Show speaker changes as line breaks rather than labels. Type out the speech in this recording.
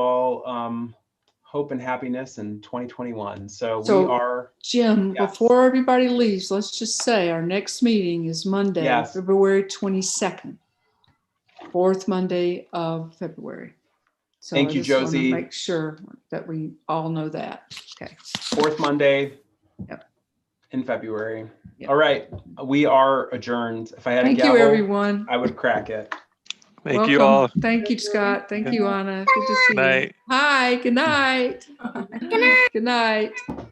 about um, hope and happiness in 2021. So, we
So-
are
Jim,
Yes.
before everybody leaves, let's just say our next meeting is Monday,
Yes.
February 22nd. Fourth Monday of February. So I
Thank you,
just wanna
Josie.
Make sure that we all know that. Okay.
fourth Monday
Yep.
in February.
Yep.
All right. We are adjourned. If I had
Thank
a gavel,
you, everyone.
I would crack it.
Thank you
Welcome.
all.
Thank you, Scott. Thank
Yeah.
you, Anna. Good to see
Good
you.
night.
Hi, good night. Good night.